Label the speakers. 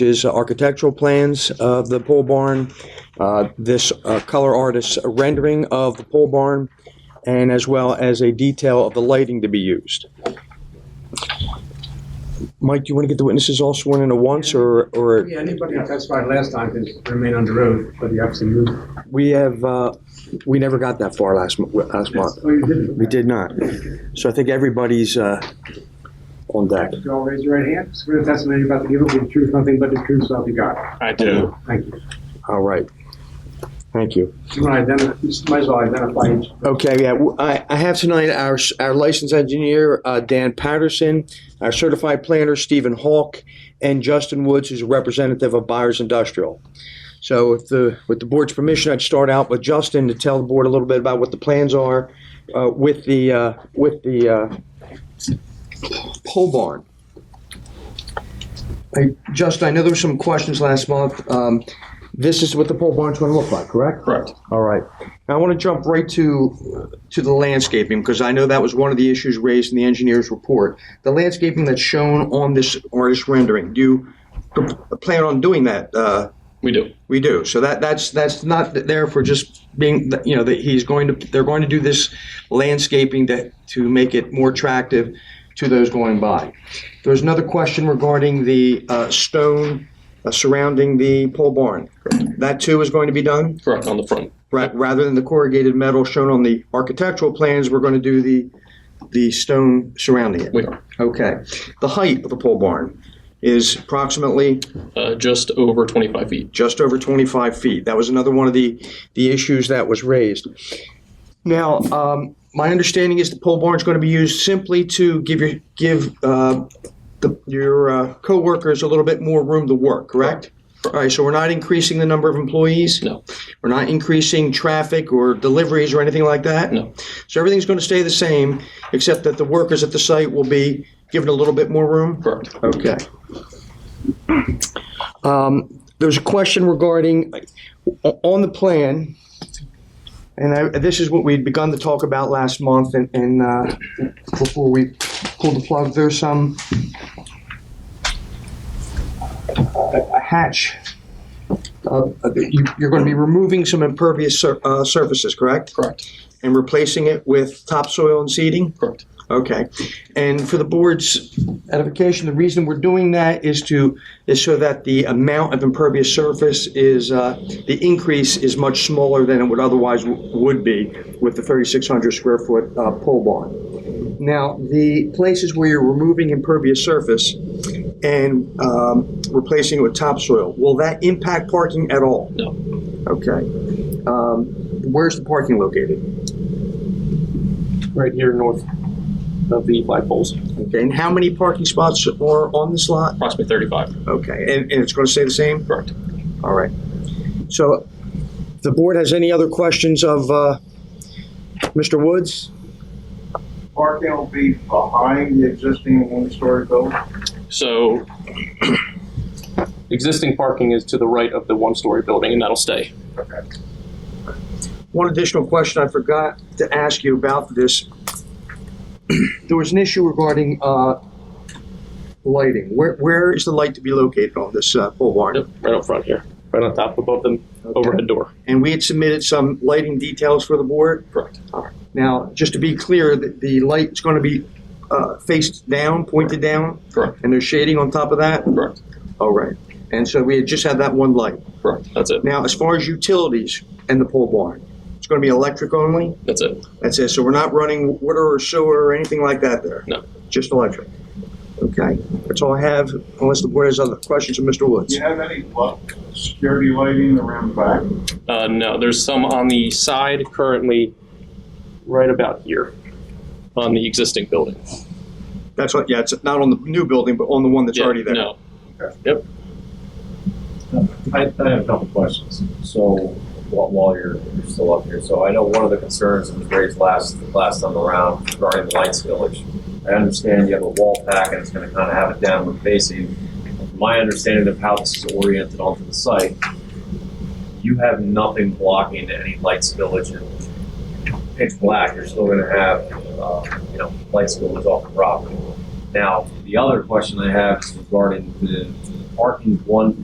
Speaker 1: is architectural plans of the pole barn, uh, this uh, color artist's rendering of the pole barn, and as well as a detail of the lighting to be used. Mike, do you want to get the witnesses all sworn in at once, or, or
Speaker 2: Yeah, anybody who testified last time can remain under oath, but you obviously moved.
Speaker 1: we have, uh, we never got that far last, mo- last month.
Speaker 2: Oh, you didn't?
Speaker 1: We did not. So I think everybody's uh, on deck.
Speaker 2: You all raise your right hand. Swear the testimony you're about to give will be the truth, nothing but the truth, so help you God.
Speaker 3: I do.
Speaker 2: Thank you.
Speaker 1: All right. Thank you.
Speaker 2: You want to identify, you might as well identify each.
Speaker 1: Okay, yeah, w- I, I have tonight our, s- our licensed engineer, uh, Dan Patterson, our certified planner, Stephen Hawk, and Justin Woods, who's a representative of Buyers Industrial. So if the, with the board's permission, I'd start out with Justin to tell the board a little bit about what the plans are, uh, with the, uh, with the, uh, pole barn. Hey, Justin, I know there were some questions last month, um, this is what the pole barn's gonna look like, correct?
Speaker 3: Correct.
Speaker 1: All right. Now, I want to jump right to to the landscaping because I know that was one of the issues raised in the engineer's report. The landscaping that's shown on this artist rendering. Do you p- plan on doing that? Uh,
Speaker 3: We do.
Speaker 1: we do. So that that's that's not there for just being. You know, that he's going to they're going to do this landscaping to to make it more attractive to those going by. There's another question regarding the uh, stone uh, surrounding the pole barn. That too is going to be done.
Speaker 3: Correct on the front.
Speaker 1: Right, rather than the corrugated metal shown on the architectural plans, we're going to do the, the stone surrounding it.
Speaker 3: We are
Speaker 1: Okay. The height of the pole barn is approximately
Speaker 3: uh, just over 25 feet.
Speaker 1: just over 25 feet. That was another one of the, the issues that was raised. Now, um, my understanding is the pole barn is going to be used simply to give your, give, uh, the, your, uh, coworkers a little bit more room to work, correct? All right, so we're not increasing the number of employees?
Speaker 3: No.
Speaker 1: We're not increasing traffic or deliveries or anything like that?
Speaker 3: No.
Speaker 1: So everything's going to stay the same, except that the workers at the site will be given a little bit more room?
Speaker 3: Correct.
Speaker 1: Okay. Um, There's a question regarding, o- on the plan, and I- this is what we'd begun to talk about last month, and- and uh, before we pulled the plug, there's some a hatch. Uh, you- You're going to be removing some impervious sur- uh, surfaces, correct?
Speaker 3: Correct.
Speaker 1: And replacing it with topsoil and seeding?
Speaker 3: Correct.
Speaker 1: Okay. And for the board's edification, the reason we're doing that is to, is so that the amount of impervious surface is, uh, the increase is much smaller than it would otherwise w- would be with the 3,600 square foot uh, pole barn. Now, the places where you're removing impervious surface and um, replacing it with topsoil, will that impact parking at all?
Speaker 3: No.
Speaker 1: Okay. Um, Where's the parking located?
Speaker 4: right here north of the light poles.
Speaker 1: Okay, and how many parking spots are on this lot?
Speaker 3: Approximately 35.
Speaker 1: Okay, and, and it's going to stay the same?
Speaker 3: Correct.
Speaker 1: All right. So, the board has any other questions of, uh, Mr. Woods?
Speaker 5: Parking will be behind the existing one-story building?
Speaker 3: So
Speaker 4: Existing parking is to the right of the one-story building, and that'll stay.
Speaker 1: One additional question I forgot to ask you about this. There was an issue regarding, uh, lighting. Where, where is the light to be located on this, uh, pole barn?
Speaker 4: Yep, right up front here, right on top above the overhead door.
Speaker 1: And we had submitted some lighting details for the board?
Speaker 3: correct.
Speaker 1: Now, just to be clear, the, the light's going to be, uh, faced down, pointed down?
Speaker 3: Correct.
Speaker 1: And there's shading on top of that?
Speaker 3: Correct.
Speaker 1: All right. And so we had just had that one light.
Speaker 3: Correct. That's it.
Speaker 1: Now, as far as utilities and the pole barn, it's going to be electric only?
Speaker 3: That's it.
Speaker 1: That's it. So we're not running water or sewer or anything like that there?
Speaker 3: No.
Speaker 1: Just electric? Okay. That's all I have, unless the board has other questions of Mr.
Speaker 5: Do
Speaker 1: Woods.
Speaker 5: you have any lo- security lighting around back?
Speaker 3: Uh, no, there's some on the side currently
Speaker 4: Right about here.
Speaker 3: on the existing building.
Speaker 1: That's what, yeah, it's not on the new building, but on the one that's
Speaker 3: Yeah,
Speaker 1: already there.
Speaker 3: No.
Speaker 6: I, I have a couple questions. So while, while you're you're still up here, so I know one of the concerns that was raised last last time around regarding the Lights Village. I understand you have a wall pack and it's going to kind of have it downward facing. My understanding of how this is oriented onto the site, you have nothing blocking any Lights Village and pitch black. You're still going to have uh, you know Lights Village off the property. Now the other question I have is regarding the parking one